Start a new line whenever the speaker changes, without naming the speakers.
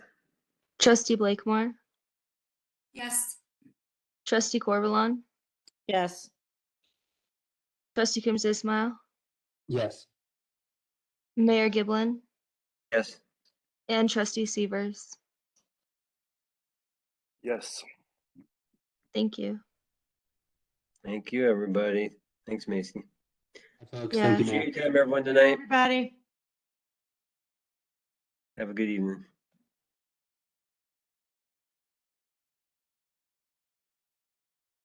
Trustee Blakemore,
Yes.
Trustee Corvalon,
Yes.
Trustee Coombs Ismail,
Yes.
Mayor Giblin,
Yes.
and Trustee Severs.
Yes.
Thank you.
Thank you, everybody. Thanks, Macy.
Folks, thank you,
Yes.
Appreciate
Matt.
your time, everyone, tonight.
Everybody.
Have a good evening.